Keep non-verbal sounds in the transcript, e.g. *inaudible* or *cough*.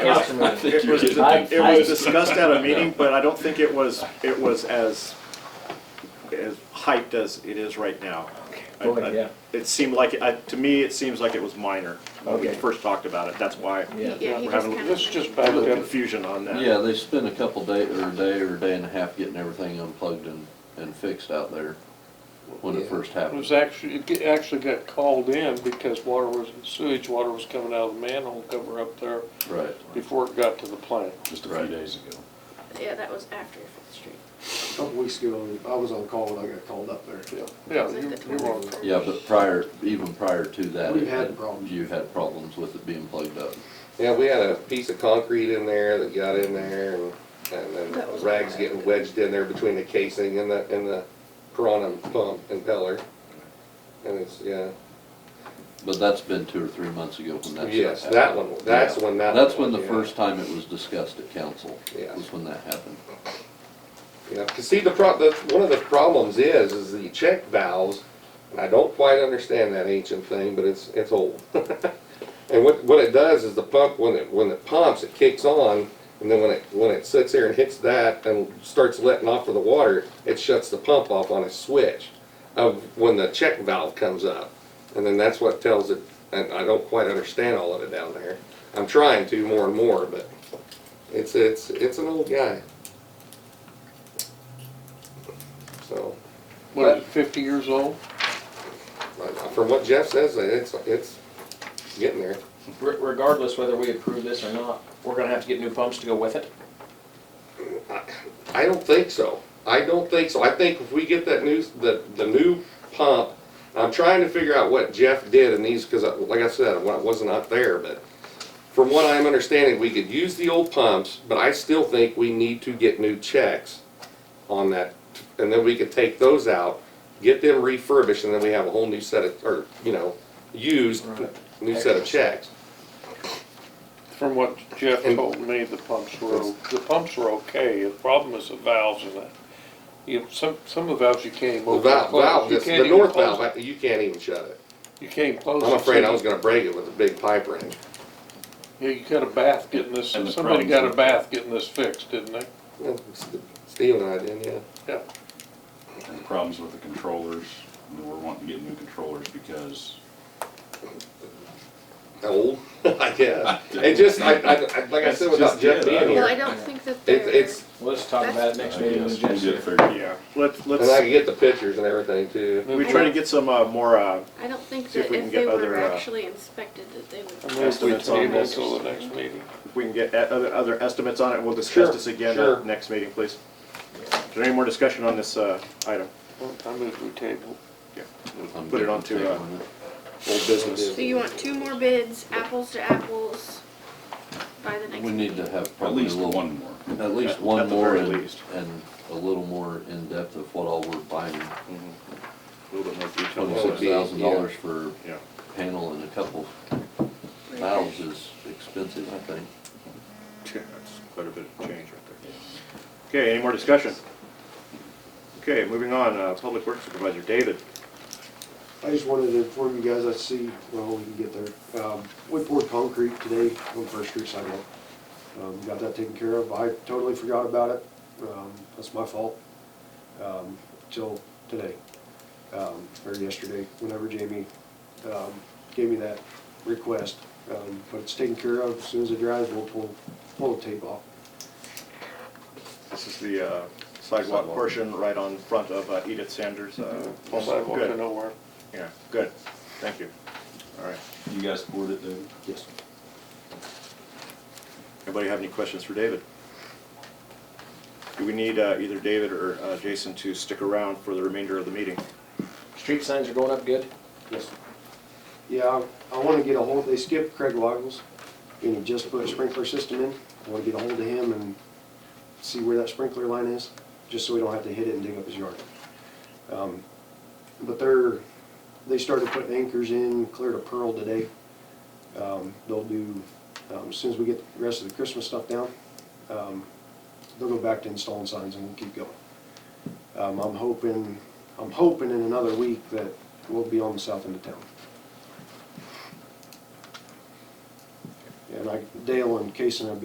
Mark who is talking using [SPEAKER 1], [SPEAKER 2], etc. [SPEAKER 1] think
[SPEAKER 2] It
[SPEAKER 1] you
[SPEAKER 2] was,
[SPEAKER 1] did.
[SPEAKER 2] it
[SPEAKER 3] I-
[SPEAKER 2] was discussed at a meeting, but I don't think it was, it was as, as hyped as it is right now. I-
[SPEAKER 3] Oh,
[SPEAKER 2] I-
[SPEAKER 3] yeah.
[SPEAKER 2] It seemed like, I, to me, it seems like it was minor when we
[SPEAKER 3] Okay.
[SPEAKER 2] first talked about it, that's why
[SPEAKER 3] Yeah.
[SPEAKER 4] Yeah, he
[SPEAKER 2] we're
[SPEAKER 4] just
[SPEAKER 2] having-
[SPEAKER 4] kind
[SPEAKER 5] Let's
[SPEAKER 4] of.
[SPEAKER 5] just
[SPEAKER 2] a
[SPEAKER 5] back
[SPEAKER 2] little
[SPEAKER 5] up.
[SPEAKER 2] confusion on that.
[SPEAKER 1] Yeah, they spent a couple day, or a day or a day and a half getting everything unplugged and, and fixed out there when it
[SPEAKER 3] Yeah.
[SPEAKER 1] first
[SPEAKER 5] It
[SPEAKER 1] happened.
[SPEAKER 5] was actually, it ge- actually got called in because water was, sewage water was coming out of the manhole cover up there
[SPEAKER 1] Right.
[SPEAKER 5] before it got to the plant.
[SPEAKER 6] just a
[SPEAKER 1] Right.
[SPEAKER 6] few days ago.
[SPEAKER 4] Yeah, that was after Fifth Street.
[SPEAKER 7] A couple weeks ago, I was on call and I got called up there.
[SPEAKER 5] Yeah, yeah,
[SPEAKER 4] Was it
[SPEAKER 5] you-
[SPEAKER 4] the
[SPEAKER 5] you're on.
[SPEAKER 4] 21st?
[SPEAKER 1] Yeah, but prior, even prior to that.
[SPEAKER 7] We've
[SPEAKER 1] it-
[SPEAKER 7] had problems.
[SPEAKER 1] You've had problems with it being plugged up.
[SPEAKER 8] Yeah, we had a piece of concrete in there that got in there and, and
[SPEAKER 4] That was
[SPEAKER 8] then rags
[SPEAKER 4] bad.
[SPEAKER 8] getting wedged in there between the casing and the, and the piranha pump impeller. And it's, yeah,
[SPEAKER 1] But that's been two or three months ago when that. stuff
[SPEAKER 8] yes, that
[SPEAKER 1] happened.
[SPEAKER 8] one, that's
[SPEAKER 1] Yeah.
[SPEAKER 8] when that.
[SPEAKER 1] That's
[SPEAKER 8] one,
[SPEAKER 1] when the
[SPEAKER 8] yeah.
[SPEAKER 1] first time it was discussed at council.
[SPEAKER 8] Yeah.
[SPEAKER 1] Was when that happened.
[SPEAKER 8] Yeah, 'cause see, the pro, the, one of the problems is, is the check valves, and I don't quite understand that ancient thing, but it's, it's old. *laughs* And what, what it does is the pump, when it, when it pumps, it kicks on, and then when it, when it sits there and hits that and starts letting off of the water, it shuts the pump off on a switch of when the check valve comes up. And then that's what tells it, and I don't quite understand all of it down there. I'm trying to more and more, but it's, it's, it's an old guy. So,
[SPEAKER 5] What, is it, fifty years old?
[SPEAKER 8] but Uh, from what Jeff says, uh, it's, it's getting there.
[SPEAKER 9] Re- Regardless whether we approve this or not, we're gonna have to get new pumps to go with it.
[SPEAKER 8] I don't think so. I don't think so. I think if we get that new, the, the new pump, I'm trying to figure out what Jeff did in these, cause I- like I said, I wa- wasn't out there, but from what I'm understanding, we could use the old pumps, but I still think we need to get new checks on that. And then we could take those out, get them refurbished, and then we have a whole new set of, or, you know, used, new set of checks.
[SPEAKER 5] From what Jeff
[SPEAKER 8] And-
[SPEAKER 5] told me, the pumps were, o- the pumps were okay. The problem is the valves and that. You know, some, some of the valves you can't even
[SPEAKER 8] The
[SPEAKER 5] open. and
[SPEAKER 8] valve,
[SPEAKER 5] close.
[SPEAKER 8] valve,
[SPEAKER 5] You
[SPEAKER 8] this-
[SPEAKER 5] can't
[SPEAKER 8] the
[SPEAKER 5] even
[SPEAKER 8] north
[SPEAKER 5] close
[SPEAKER 8] valve, you can't even shut it.
[SPEAKER 5] it. You can't close.
[SPEAKER 8] I'm
[SPEAKER 5] it.
[SPEAKER 8] afraid I was gonna break it with a big pipe wrench.
[SPEAKER 5] Yeah, you got a bath getting this,
[SPEAKER 6] And the
[SPEAKER 5] somebody
[SPEAKER 6] problems
[SPEAKER 5] got a
[SPEAKER 6] with-
[SPEAKER 5] bath getting this fixed, didn't they?
[SPEAKER 8] Yeah, St- Steve and I did, yeah.
[SPEAKER 5] Yeah.
[SPEAKER 6] And the problems with the controllers, and we're wanting to get new controllers because
[SPEAKER 8] Old, *laughs* I guess. It just, I, I, I- like I
[SPEAKER 6] That's
[SPEAKER 8] said, without
[SPEAKER 6] just
[SPEAKER 8] Jeff
[SPEAKER 6] it.
[SPEAKER 8] being
[SPEAKER 4] Well, I
[SPEAKER 8] here,
[SPEAKER 4] don't think that
[SPEAKER 8] it's,
[SPEAKER 4] they're,
[SPEAKER 8] it's,
[SPEAKER 9] We'll just talk about it next meeting
[SPEAKER 6] Yes,
[SPEAKER 9] with
[SPEAKER 6] we
[SPEAKER 9] Jess.
[SPEAKER 6] get it figured out.
[SPEAKER 5] Yeah, let's, let's,
[SPEAKER 8] and I can get the pictures and everything too.
[SPEAKER 5] we
[SPEAKER 2] We try to get some, uh, more, uh,
[SPEAKER 4] I don't think
[SPEAKER 2] See if
[SPEAKER 4] that
[SPEAKER 2] we can
[SPEAKER 4] if
[SPEAKER 2] get
[SPEAKER 4] they were
[SPEAKER 2] other, uh,
[SPEAKER 4] actually inspected, that they would.
[SPEAKER 5] move we
[SPEAKER 2] estimates on
[SPEAKER 5] table
[SPEAKER 2] this.
[SPEAKER 5] till the next meeting.
[SPEAKER 2] if we can get e- other, other estimates on it, we'll discuss
[SPEAKER 8] Sure,
[SPEAKER 2] this again
[SPEAKER 8] sure.
[SPEAKER 2] at next meeting, please. Is there any more discussion on this, uh, item?
[SPEAKER 5] I move we table.
[SPEAKER 1] I'm
[SPEAKER 2] Put it
[SPEAKER 1] getting
[SPEAKER 2] on to,
[SPEAKER 1] the
[SPEAKER 2] uh,
[SPEAKER 1] table.
[SPEAKER 2] Old business.
[SPEAKER 4] So you want two more bids, apples to apples, by the next
[SPEAKER 1] We
[SPEAKER 4] meeting?
[SPEAKER 1] need to have
[SPEAKER 6] at
[SPEAKER 1] probably a
[SPEAKER 6] least
[SPEAKER 1] little.
[SPEAKER 6] one more.
[SPEAKER 1] At
[SPEAKER 2] At-
[SPEAKER 1] least one
[SPEAKER 2] at the
[SPEAKER 1] more
[SPEAKER 2] very
[SPEAKER 1] and,
[SPEAKER 2] least.
[SPEAKER 1] and a little more in-depth of what all we're buying.
[SPEAKER 2] A little bit more detail.
[SPEAKER 1] Twenty-six thousand dollars for
[SPEAKER 2] Yeah.
[SPEAKER 1] panel and a couple valves is expensive, I think.
[SPEAKER 2] Yeah, That's quite a bit of change right there. Okay, any more discussion? Okay, moving on, uh, Public Works Supervisor David.
[SPEAKER 7] I just wanted to inform you guys, I see, well, we can get there. Um, We poured concrete today on First Street sidewalk. Um, Got that taken care of. I totally forgot about it. Um, That's my fault. Um, Till today, um, or yesterday, whenever Jamie um, gave me that request. Um, But it's taken care of. As soon as it dries, we'll pull, pull the tape off.
[SPEAKER 2] This is the uh, sidewalk
[SPEAKER 1] Sidewalk.
[SPEAKER 2] portion right on front of uh, Edith Sanders' uh, home.
[SPEAKER 5] Mm-hmm. Sidewalk to
[SPEAKER 2] Good,
[SPEAKER 5] nowhere.
[SPEAKER 2] yeah, good, thank you. All right,
[SPEAKER 6] You guys board it, David?
[SPEAKER 7] Yes.
[SPEAKER 2] anybody have any questions for David? Do we need uh, either David or uh, Jason to stick around for the remainder of the meeting?
[SPEAKER 9] Street signs are going up good.
[SPEAKER 7] Yes. Yeah, I want to get a hold, they skipped Craig Loggles, and he just put a sprinkler system in. I want to get a hold of him and see where that sprinkler line is, just so we don't have to hit it and dig up his yard. Um, But they're, they started putting anchors in, cleared a pearl today. Um, They'll do, um, as soon as we get the rest of the Christmas stuff down, um, they'll go back to installing signs and we'll keep going. Um, I'm hoping, I'm hoping in another week that we'll be on the south end of town. And I, Dale and Kason have been